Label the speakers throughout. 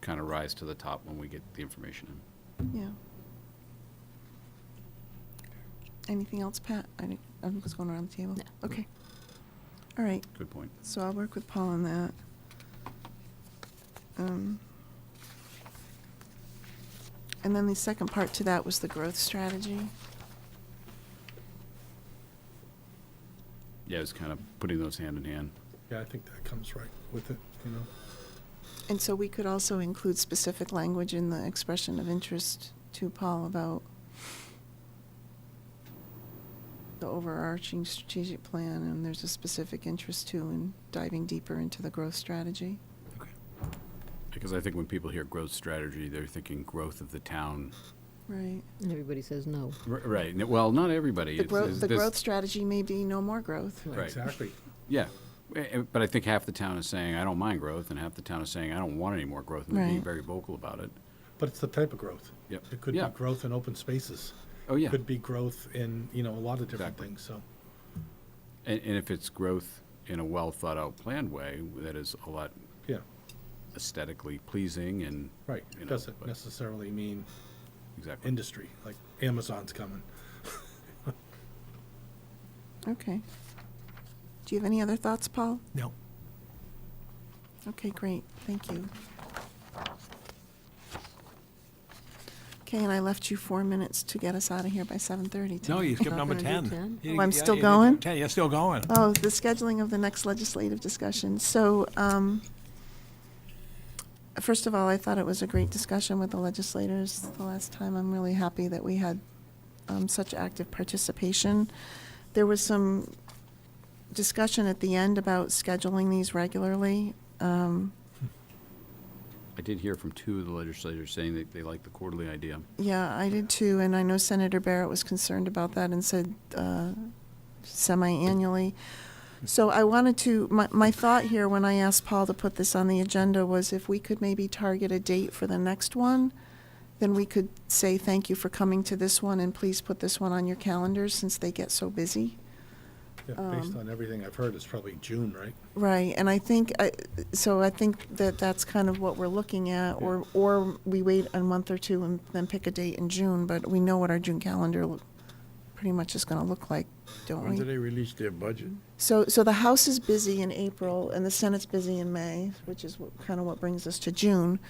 Speaker 1: kind of rise to the top when we get the information in.
Speaker 2: Yeah. Anything else, Pat? I didn't, I was going around the table.
Speaker 3: No.
Speaker 2: Okay. All right,
Speaker 1: Good point.
Speaker 2: so I'll work with Paul on that. Um, And then the second part to that was the growth strategy.
Speaker 1: Yeah, it's kind of putting those hand in hand.
Speaker 4: Yeah, I think that comes right with it, you know?
Speaker 2: And so we could also include specific language in the expression of interest to Paul about the overarching strategic plan, and there's a specific interest too in diving deeper into the growth strategy.
Speaker 1: Because I think when people hear growth strategy, they're thinking growth of the town.
Speaker 2: Right.
Speaker 3: And everybody says no.
Speaker 1: R- Right, n- well, not everybody.
Speaker 2: The
Speaker 1: It's-
Speaker 2: growth,
Speaker 1: it's-
Speaker 2: the
Speaker 1: this-
Speaker 2: growth strategy may be no more growth.
Speaker 1: Right.
Speaker 4: Exactly.
Speaker 1: Yeah, Eh, eh, but I think half the town is saying, I don't mind growth, and half the town is saying, I don't want any more growth, and they're being
Speaker 2: Right.
Speaker 1: very vocal about it.
Speaker 4: But it's the type of growth.
Speaker 1: Yep.
Speaker 4: It could be
Speaker 1: Yeah.
Speaker 4: growth in open spaces.
Speaker 1: Oh, yeah.
Speaker 4: Could be growth in, you know, a lot of different
Speaker 1: Exactly.
Speaker 4: things, so.
Speaker 1: And, and if it's growth in a well-thought-out planned way, that is a lot
Speaker 4: Yeah,
Speaker 1: aesthetically pleasing and,
Speaker 4: right.
Speaker 1: You
Speaker 4: It
Speaker 1: know,
Speaker 4: doesn't
Speaker 1: but-
Speaker 4: necessarily mean
Speaker 1: exactly.
Speaker 4: industry, like Amazon's coming.
Speaker 2: Okay. Do you have any other thoughts, Paul?
Speaker 4: No.
Speaker 2: Okay, great, thank you. Okay, and I left you four minutes to get us out of here by seven thirty
Speaker 5: No, you skipped
Speaker 3: Not
Speaker 5: number
Speaker 3: gonna do
Speaker 5: 10.
Speaker 3: 10?
Speaker 2: Oh,
Speaker 5: You-
Speaker 2: I'm
Speaker 5: yeah,
Speaker 2: still
Speaker 5: you did
Speaker 2: going?
Speaker 5: 10, you're still going.
Speaker 2: Oh, the scheduling of the next legislative discussion. So, um, first of all, I thought it was a great discussion with the legislators the last time. I'm really happy that we had um, such active participation. There was some discussion at the end about scheduling these regularly. Um,
Speaker 1: I did hear from two of the legislators saying that they like the quarterly idea.
Speaker 2: Yeah, I did too, and I know Senator Barrett was concerned about that and said uh, semi-annually. So I wanted to, my, my thought here when I asked Paul to put this on the agenda was if we could maybe target a date for the next one, then we could say, thank you for coming to this one, and please put this one on your calendars since they get so busy.
Speaker 4: Yeah, based on everything I've heard, it's probably June, right?
Speaker 2: Right, and I think, I- so I think that that's kind of what we're looking at, or, or we wait a month or two and then pick a date in June, but we know what our June calendar lo- pretty much is gonna look like, don't we?
Speaker 6: they release their budget?
Speaker 2: So, so the House is busy in April, and the Senate's busy in May, which is what, kind of what brings us to June.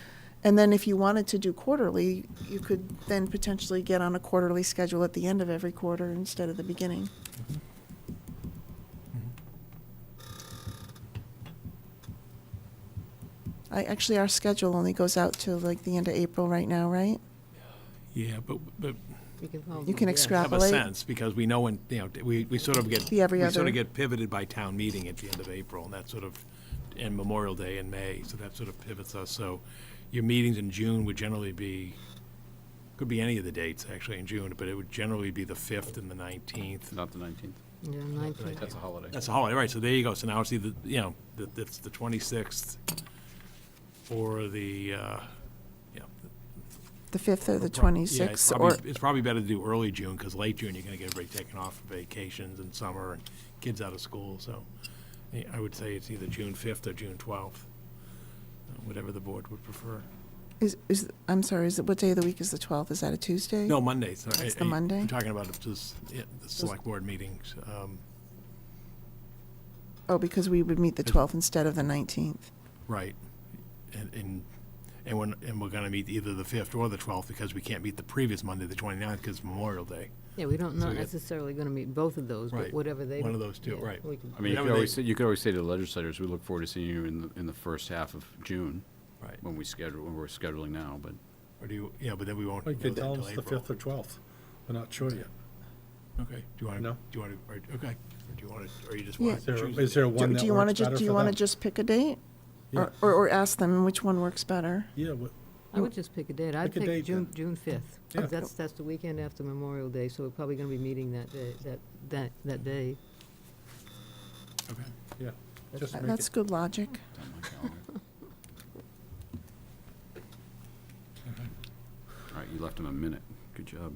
Speaker 2: And then if you wanted to do quarterly, you could then potentially get on a quarterly schedule at the end of every quarter instead of the beginning. I, actually, our schedule only goes out to like the end of April right now, right?
Speaker 5: Yeah, but, but
Speaker 3: You can follow
Speaker 2: You can
Speaker 3: the-
Speaker 2: extract-
Speaker 5: have a
Speaker 2: Extrapolate.
Speaker 5: sense, because we know when, you know, we, we sort of get,
Speaker 2: Be every
Speaker 5: we sort
Speaker 2: other-
Speaker 5: of get pivoted by town meeting at the end of April, and that sort of, and Memorial Day in May, so that sort of pivots us. So your meetings in June would generally be, could be any of the dates, actually, in June, but it would generally be the 5th and the 19th.
Speaker 1: Not the 19th.
Speaker 3: Yeah, 19.
Speaker 1: That's a holiday.
Speaker 5: That's a holiday, right, so there you go, so now it's either, you know, the- it's the 26th or the, uh, yeah.
Speaker 2: The fifth or the
Speaker 5: prob- yeah, it's
Speaker 2: twenty-sixth,
Speaker 5: probably-
Speaker 2: or,
Speaker 5: It's probably better to do early June, because late June, you're gonna get everybody taken off for vacations and summer and kids out of school, so eh, I would say it's either June 5th or June 12th, uh, whatever the board would prefer.
Speaker 2: is, is, I'm sorry, is it, what day of the week is the twelfth? Is that a Tuesday?
Speaker 5: No, Mondays. sorry,
Speaker 2: That's the
Speaker 5: eh, eh,
Speaker 2: Monday?
Speaker 5: I'm talking about this, yeah, the select board meetings. um,
Speaker 2: Oh, because we would meet the 12th instead of the 19th.
Speaker 5: Right. And, and, and when, and we're gonna meet either the fifth or the twelfth, because we can't meet the previous Monday, the twenty-ninth, because Memorial Day.
Speaker 3: Yeah, we don't,
Speaker 5: So
Speaker 3: not
Speaker 5: we got-
Speaker 3: necessarily going to meet both of those, but
Speaker 5: Right.
Speaker 3: whatever they.
Speaker 5: One of those two,
Speaker 3: yeah,
Speaker 5: right.
Speaker 3: we can-
Speaker 1: I mean, you
Speaker 5: Yeah,
Speaker 1: could
Speaker 5: but
Speaker 1: always, say
Speaker 5: they-
Speaker 1: you could always say to the legislators, we look forward to seeing you in the, in the first half of June,
Speaker 5: Right.
Speaker 1: when we schedule, when we're scheduling now, but
Speaker 5: Or do you, yeah, but then we won't.
Speaker 4: Like,
Speaker 5: know
Speaker 4: they
Speaker 5: that
Speaker 4: tell
Speaker 5: till
Speaker 4: us the
Speaker 5: April.
Speaker 4: fifth or twelfth. We're not sure yet.
Speaker 5: Okay, do you wanna, do
Speaker 4: No.
Speaker 5: you wanna, or, okay, or do you wanna, or you just
Speaker 2: Yeah.
Speaker 5: wanna
Speaker 4: Is there,
Speaker 5: choose?
Speaker 4: is there
Speaker 2: Do
Speaker 4: one that
Speaker 2: do you want to
Speaker 4: works
Speaker 2: just,
Speaker 4: better
Speaker 2: do you
Speaker 4: for
Speaker 2: want to
Speaker 4: them?
Speaker 2: just pick a date?
Speaker 4: Yeah.
Speaker 2: Or- Or, or ask them which one works better?
Speaker 4: Yeah, what-
Speaker 3: I would just pick a date. I'd
Speaker 4: Pick a
Speaker 3: pick
Speaker 4: date
Speaker 3: June,
Speaker 4: then.
Speaker 3: June 5th.
Speaker 4: Yeah.
Speaker 3: That's, that's the weekend after Memorial Day, so we're probably going to be meeting that day, that, that, that day.
Speaker 5: Okay.
Speaker 4: yeah, just
Speaker 2: Uh,
Speaker 4: make
Speaker 2: That's
Speaker 4: it,
Speaker 2: good logic.
Speaker 1: it's on my calendar. All right, you left him a minute. Good job.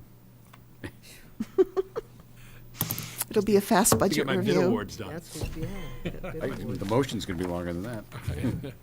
Speaker 2: It'll be a fast
Speaker 5: To get
Speaker 2: budget
Speaker 5: my bid
Speaker 2: review.
Speaker 5: awards done.
Speaker 3: That's, yeah. that- that
Speaker 1: I-
Speaker 3: would-
Speaker 1: The motion's gonna be longer than that.